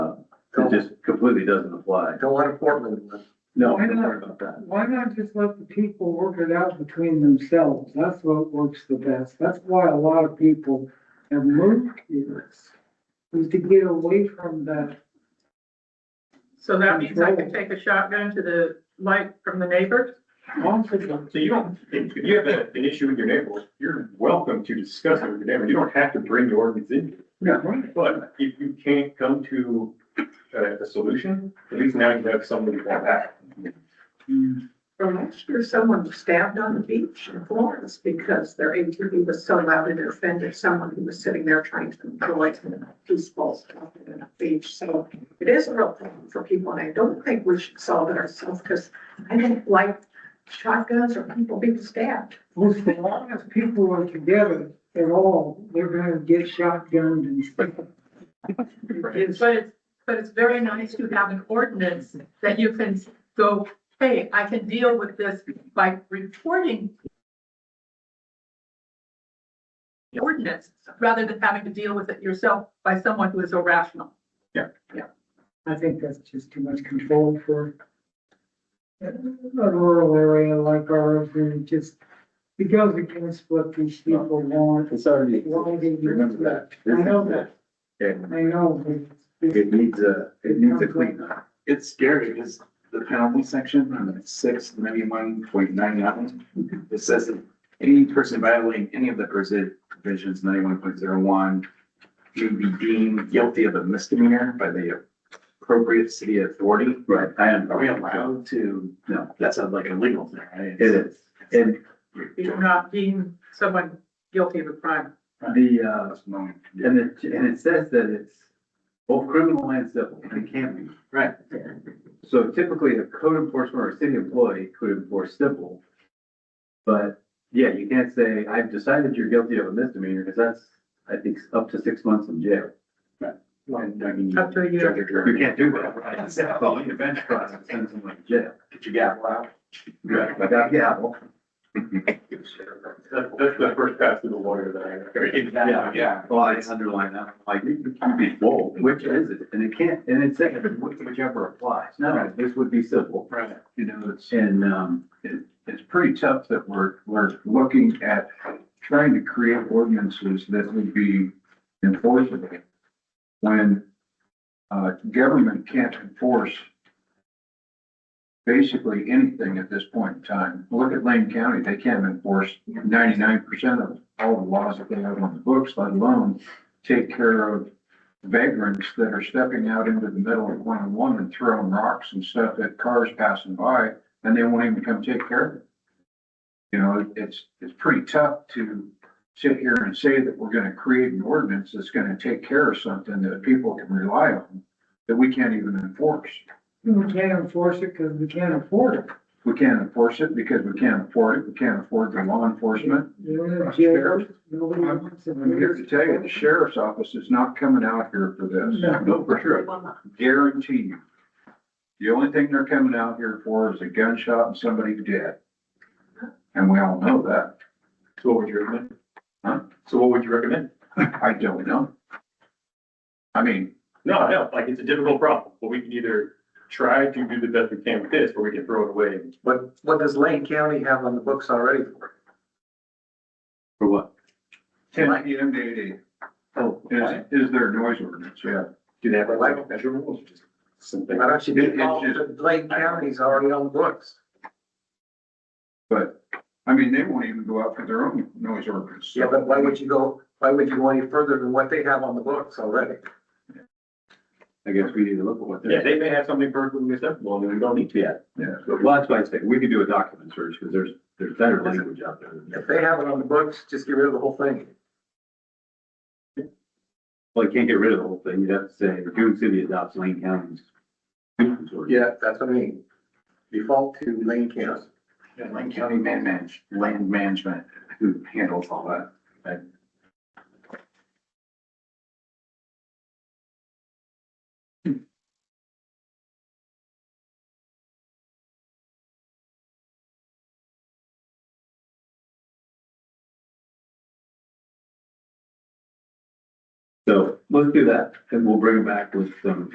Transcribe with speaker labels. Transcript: Speaker 1: just completely doesn't apply.
Speaker 2: Don't want to Portland.
Speaker 1: No,
Speaker 3: Why
Speaker 1: don't
Speaker 3: not?
Speaker 1: worry about that.
Speaker 3: Why not just let the people work it out between themselves? That's what works the best. That's why a lot of people have moved here. Is to get away from that.
Speaker 4: So that means I can take a shotgun to the light from the neighbors?
Speaker 3: conflict.
Speaker 5: So you don't, if if you have a- an issue with your neighbor, you're welcome to discuss it with your neighbor. You don't have to bring the ordinance in.
Speaker 3: Yeah, right.
Speaker 5: But if you can't come to uh, a, a solution, at least now you have somebody to back.
Speaker 4: Or last year, someone was stabbed on the beach in Florence because their ATV was so loud it offended someone who was sitting there trying to enjoy peaceful stuff on the beach. So it is a real problem for people, and I don't think we should solve it ourselves, because I don't like shotguns or people being stabbed.
Speaker 3: Well, so long as people are together at all, they're gonna get shotgunned and stuff.
Speaker 6: But it's, but it's very nice to have an ordinance that you can go, hey, I can deal with this by reporting the ordinance, rather than having to deal with it yourself by someone who is irrational.
Speaker 3: I think that's just too much control for a rural area like ours, and it just, it goes against what these people want.
Speaker 1: It's already,
Speaker 3: Why they use
Speaker 1: remember that.
Speaker 3: I know that,
Speaker 1: And
Speaker 3: I know, but it's-
Speaker 1: it needs a, it needs a cleanup. It's scary because the penalty section on six ninety-one point nine nine, it says that any person violating any of the provision- provisions ninety-one point zero one may be deemed guilty of a misdemeanor by the appropriate city authority. Right, I am. Are we allowed to? No. That's a- like a legal thing, right? It is. And
Speaker 6: You're not being someone guilty of a crime.
Speaker 7: The, uh, and it, and it says that it's both criminal and civil, and it can be.
Speaker 1: Right.
Speaker 7: So typically, a code enforcement or a city employee could enforce civil. But, yeah, you can't say, I've decided you're guilty of a misdemeanor, because that's, I think, up to six months in jail.
Speaker 1: And, I mean,
Speaker 6: Up to a
Speaker 1: you
Speaker 6: year.
Speaker 7: You
Speaker 1: can't
Speaker 7: can't do that, right? Except following the bench process, send someone to jail.
Speaker 1: get your gavel out.
Speaker 7: Right. Without gavel.
Speaker 5: That's, that's the first pass to the lawyer that I.
Speaker 7: Yeah,
Speaker 1: yeah.
Speaker 7: Well, I underline that, like, whoa, which is it? And it can't, and it's like, whichever applies. No, this would be civil.
Speaker 1: Right.
Speaker 7: You know, it's.
Speaker 8: And um, it, it's pretty tough that we're, we're looking at trying to create ordinances that would be enforceable. When uh, government can't enforce basically anything at this point in time. Look at Lane County, they can't enforce ninety-nine percent of all the laws that they have on the books, let alone take care of vagrants that are stepping out into the middle of one-on-one and throwing rocks and stuff at cars passing by and they won't even come take care of it. You know, it's, it's pretty tough to sit here and say that we're gonna create an ordinance that's gonna take care of something that people can rely on, that we can't even enforce.
Speaker 3: we can't enforce it because we can't afford it.
Speaker 8: We can't enforce it because we can't afford it, we can't afford the law enforcement.
Speaker 3: You're in jail, nobody wants it.
Speaker 8: I'm here to tell you, the sheriff's office is not coming out here for this.
Speaker 3: No.
Speaker 8: No, for sure. Guarantee you. The only thing they're coming out here for is a gunshot and somebody dead. And we all know that.
Speaker 5: So what would you recommend?
Speaker 8: Huh?
Speaker 5: So what would you recommend?
Speaker 8: I don't know. I mean,
Speaker 5: No, I know, like, it's a difficult problem, but we can either try to do the best we can with this, or we can throw it away and
Speaker 2: But what does Lane County have on the books already for?
Speaker 7: For what?
Speaker 8: ten MDD
Speaker 7: Oh,
Speaker 8: is, is their noise ordinance, yeah.
Speaker 5: do that by like measure rules, or just
Speaker 2: it?
Speaker 5: something.
Speaker 2: Why don't you
Speaker 8: It-
Speaker 2: do
Speaker 8: it's
Speaker 2: all that Lane County's already on the books?
Speaker 8: But, I mean, they won't even go out for their own noise ordinance. so-
Speaker 2: Yeah, but why would you go, why would you go any further than what they have on the books already?
Speaker 7: I guess we need to look at what they're.
Speaker 5: Yeah, they may have something perfectly acceptable, and we don't need to.
Speaker 7: Yeah, yeah. Well, that's why I say, we could do a document search, because there's, there's better language out there. than that.
Speaker 2: If they have it on the books, just get rid of the whole thing.
Speaker 7: Well, you can't get rid of the whole thing, you'd have to say, Dune City adopts Lane County's. Yeah.
Speaker 2: Yeah, that's what I mean. Default to Lane County.
Speaker 7: Yeah,
Speaker 8: Lane
Speaker 7: Lane
Speaker 8: County Man Manage, Land Management,
Speaker 7: Hmm.
Speaker 8: who handles all that.
Speaker 7: So let's do that, and we'll bring it back with some